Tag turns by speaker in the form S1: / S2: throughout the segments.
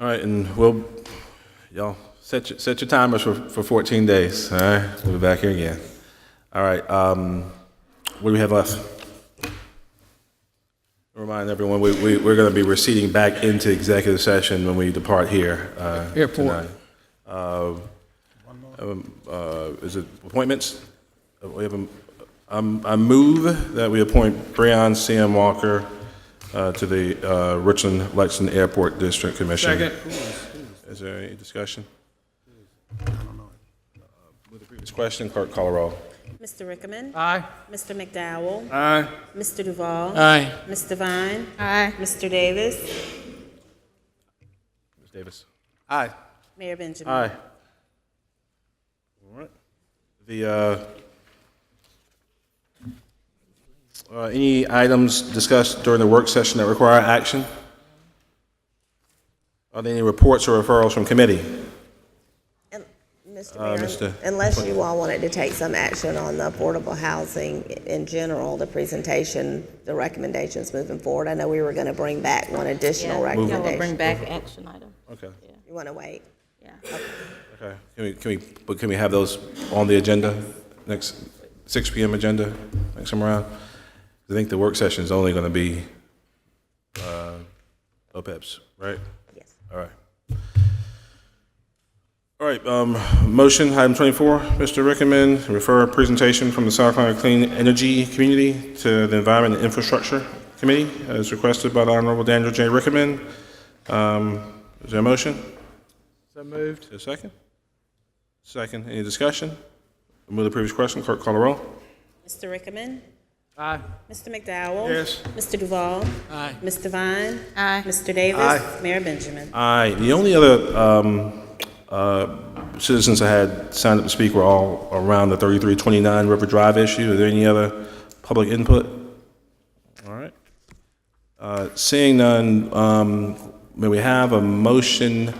S1: All right, and we'll, y'all, set your, set your timers for, for 14 days, all right? We'll be back here again. All right, um, what do we have left? Remind everyone, we, we, we're gonna be receding back into executive session when we depart here, uh,
S2: Airport.
S1: uh, is it appointments? Uh, We have a, um, I move that we appoint Breon C.M. Walker, uh, to the, uh, Richland Lexington Airport District Commission. Is there any discussion? Uh, With the previous question, clerk call a roll.
S3: Mr. Rickman.
S2: Aye.
S3: Mr. McDowell.
S2: Aye.
S3: Mr. Duval.
S2: Aye.
S3: Ms. Devine.
S4: Aye.
S3: Mr. Davis.
S1: Ms. Davis?
S2: Aye.
S3: Mayor Benjamin.
S1: Aye. All right. The, uh, uh, any items discussed during the work session that require action? Are there any reports or referrals from committee?
S5: And- Mr.
S1: Mr.
S5: Mayor, unless you all wanted to take some action on the affordable housing in general, the presentation, the recommendations moving forward, I know we were going to bring back one additional
S4: Yeah, yeah, we'll bring
S5: recommendation.
S4: back action item,
S1: Okay,
S5: You want to wait?
S4: yeah.
S1: okay. Can we, can we, but can we have those on the agenda, next, 6 PM agenda, next time around? I think the work session is only going to be uh, OPEBs, right?
S5: Yes.
S1: All right. All right, um, motion, item twenty-four, Mr. Rickman, refer presentation from the South Carolina Clean Energy Community to the Environment and Infrastructure Committee, as requested by the Honorable Daniel J. Rickman. Um, is there a motion?
S2: So moved.
S1: Is there a second? Second, any discussion? Move the previous question, clerk call the roll.
S3: Mr. Rickman.
S2: Aye.
S3: Mr. McDowell.
S2: Yes.
S3: Mr. Duval.
S2: Aye.
S3: Ms. Devine.
S4: Aye.
S3: Mr. Davis.
S2: Aye.
S3: Mayor Benjamin.
S1: Aye. The only other um, uh, citizens that had signed up to speak were all around the 3329 River Drive issue. Are there any other public input? All right. Uh, Seeing none, um, may we have a motion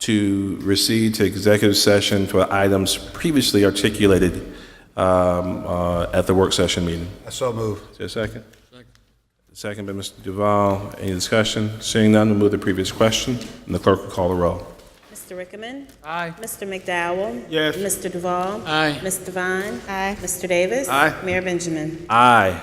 S1: to recede to executive session for items previously articulated um, uh, at the work session meeting?
S6: I so move.
S1: Is there a second? Second by Mr. Duval. Any discussion? Seeing none, we'll move to the previous question, and the clerk will call the roll.
S3: Mr. Rickman.
S2: Aye.
S3: Mr. McDowell.
S2: Yes.
S3: Mr. Duval.
S2: Aye.
S3: Ms. Devine.
S4: Aye.
S3: Mr. Davis.
S2: Aye.
S3: Mayor Benjamin.
S1: Aye.